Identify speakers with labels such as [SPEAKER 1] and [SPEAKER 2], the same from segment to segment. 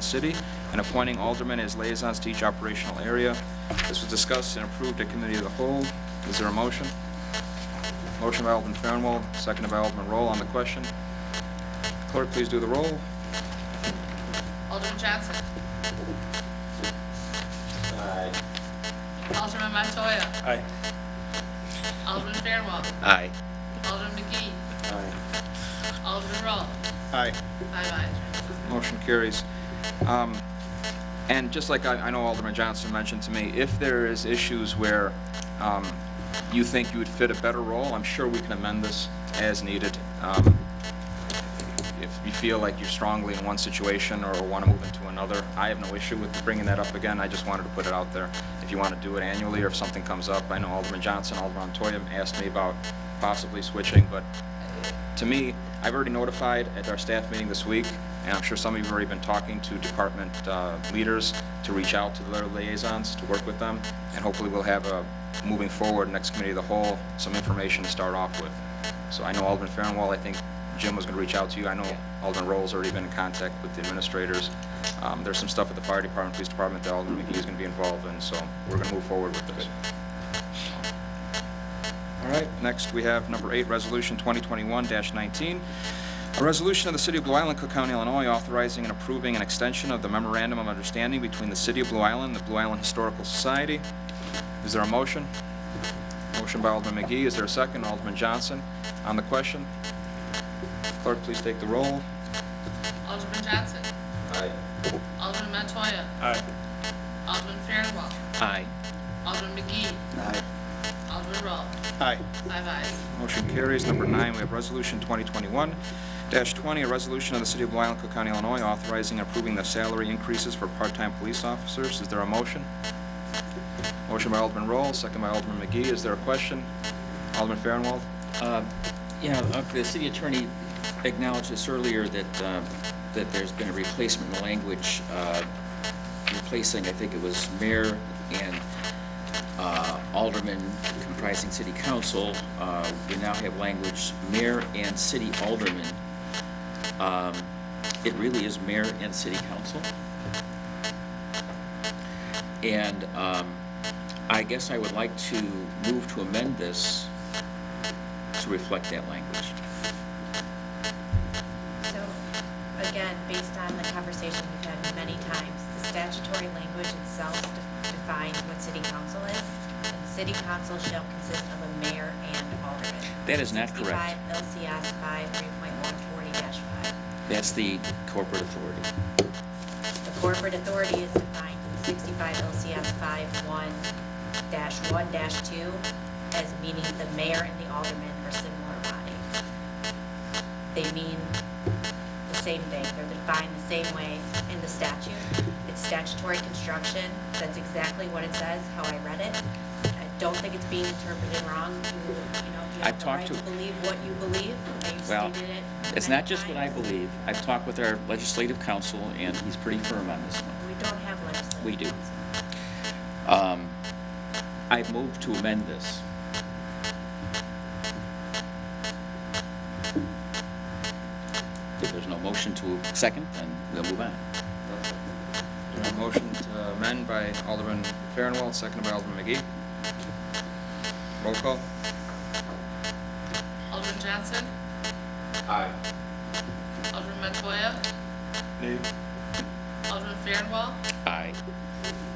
[SPEAKER 1] City, and appointing aldermen as liaisons to each operational area. This was discussed and approved at committee of the whole. Is there a motion? Motion by Alderman Farnwell, seconded by Alderman Roll on the question. Clerk, please do the roll.
[SPEAKER 2] Alderman Johnson. Aye. Alderman Montoya.
[SPEAKER 3] Aye.
[SPEAKER 2] Alderman Fairwell.
[SPEAKER 3] Aye.
[SPEAKER 2] Alderman McGee. Aye. Alderman Roll.
[SPEAKER 3] Aye.
[SPEAKER 2] Five ayes.
[SPEAKER 1] Motion carries. Um, And just like I I know Alderman Johnson mentioned to me, if there is issues where um, you think you would fit a better role, I'm sure we can amend this as needed. Um, If you feel like you're strongly in one situation or want to move into another, I have no issue with bringing that up again. I just wanted to put it out there. If you want to do it annually or if something comes up, I know Alderman Johnson, Alderman Toya asked me about possibly switching, but to me, I've already notified at our staff meeting this week, and I'm sure some of you have already been talking to department uh, leaders to reach out to their liaisons, to work with them, and hopefully we'll have a, moving forward, next committee of the whole, some information to start off with. So I know Alderman Farnwell, I think Jim was going to reach out to you. I know Alderman Roll's already been in contact with the administrators. Um, There's some stuff at the fire department, police department that Alderman McGee is going to be involved in, so we're going to move forward with this. All right, next we have number eight, Resolution 2021-19. A resolution of the City of Blue Island, Cook County, Illinois, authorizing and approving an extension of the memorandum of understanding between the City of Blue Island and the Blue Island Historical Society. Is there a motion? Motion by Alderman McGee, is there a second? Alderman Johnson on the question. Clerk, please take the roll.
[SPEAKER 2] Alderman Johnson. Aye. Alderman Montoya.
[SPEAKER 3] Aye.
[SPEAKER 2] Alderman Fairwell.
[SPEAKER 3] Aye.
[SPEAKER 2] Alderman McGee.
[SPEAKER 3] Aye.
[SPEAKER 2] Alderman Roll.
[SPEAKER 3] Aye.
[SPEAKER 2] Five ayes.
[SPEAKER 1] Motion carries. Number nine, we have Resolution 2021-20, a resolution of the City of Blue Island, Cook County, Illinois, authorizing and approving the salary increases for part-time police officers. Is there a motion? Motion by Alderman Roll, second by Alderman McGee. Is there a question? Alderman Farnwell?
[SPEAKER 4] Uh, Yeah, uh, the city attorney acknowledged this earlier, that, uh, that there's been a replacement in language, uh, replacing, I think it was mayor and uh, alderman comprising city council. Uh, We now have language mayor and city alderman. Um, It really is mayor and city council. And um, I guess I would like to move to amend this to reflect that language.
[SPEAKER 5] So, again, based on the conversation we've had many times, the statutory language itself de- defines what city council is, and city council shall consist of a mayor and alderman.
[SPEAKER 4] That is not correct.
[SPEAKER 5] 65 LCS 5, 3.140-5.
[SPEAKER 4] That's the corporate authority.
[SPEAKER 5] The corporate authority is defined in 65 LCS 5, 1-1-2 as meaning the mayor and the alderman are similar body. They mean the same thing, they're defined the same way in the statute. It's statutory construction, that's exactly what it says, how I read it. I don't think it's being interpreted wrong, you, you know, you
[SPEAKER 4] I
[SPEAKER 5] have the
[SPEAKER 4] talked
[SPEAKER 5] right
[SPEAKER 4] to-
[SPEAKER 5] to believe what you believe, and you've
[SPEAKER 4] Well,
[SPEAKER 5] stated it.
[SPEAKER 4] it's
[SPEAKER 5] many
[SPEAKER 4] not just what I
[SPEAKER 5] times.
[SPEAKER 4] believe. I've talked with our legislative counsel, and he's pretty firm on this one.
[SPEAKER 5] We don't have legislative
[SPEAKER 4] We do.
[SPEAKER 5] council.
[SPEAKER 4] Um, I move to amend this. If there's no motion to second, then we'll move on.
[SPEAKER 1] Motion to amend by Alderman Farnwell, seconded by Alderman McGee. Roll call.
[SPEAKER 2] Alderman Johnson. Aye. Alderman Montoya.
[SPEAKER 3] Nay.
[SPEAKER 2] Alderman Fairwell.
[SPEAKER 4] Aye.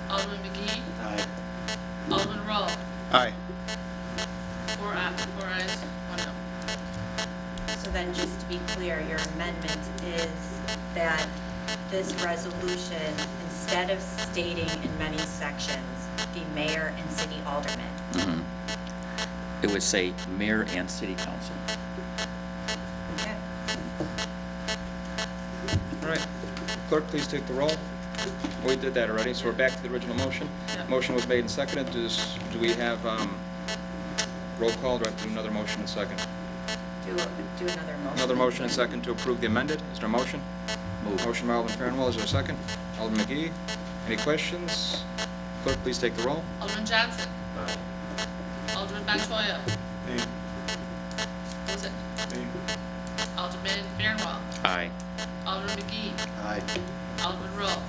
[SPEAKER 2] Alderman McGee.
[SPEAKER 3] Aye.
[SPEAKER 2] Alderman Roll.
[SPEAKER 3] Aye.
[SPEAKER 2] Four ayes, four ayes, one no.
[SPEAKER 5] So then, just to be clear, your amendment is that this resolution, instead of stating in many sections, the mayor and city alderman,
[SPEAKER 4] Mhm. It would say mayor and city council.
[SPEAKER 1] All right. Clerk, please take the roll. We did that already, so we're back to the original motion.
[SPEAKER 2] Yeah.
[SPEAKER 1] Motion was made and seconded. Does, do we have, um, roll call? Do I have to do another motion and second?
[SPEAKER 5] do, do another motion.
[SPEAKER 1] Another motion and second to approve the amended. Is there a motion?
[SPEAKER 4] Move.
[SPEAKER 1] Motion by Alderman Farnwell. Is there a second? Alderman McGee. Any questions? Clerk, please take the roll.
[SPEAKER 2] Alderman Johnson. Alderman Montoya.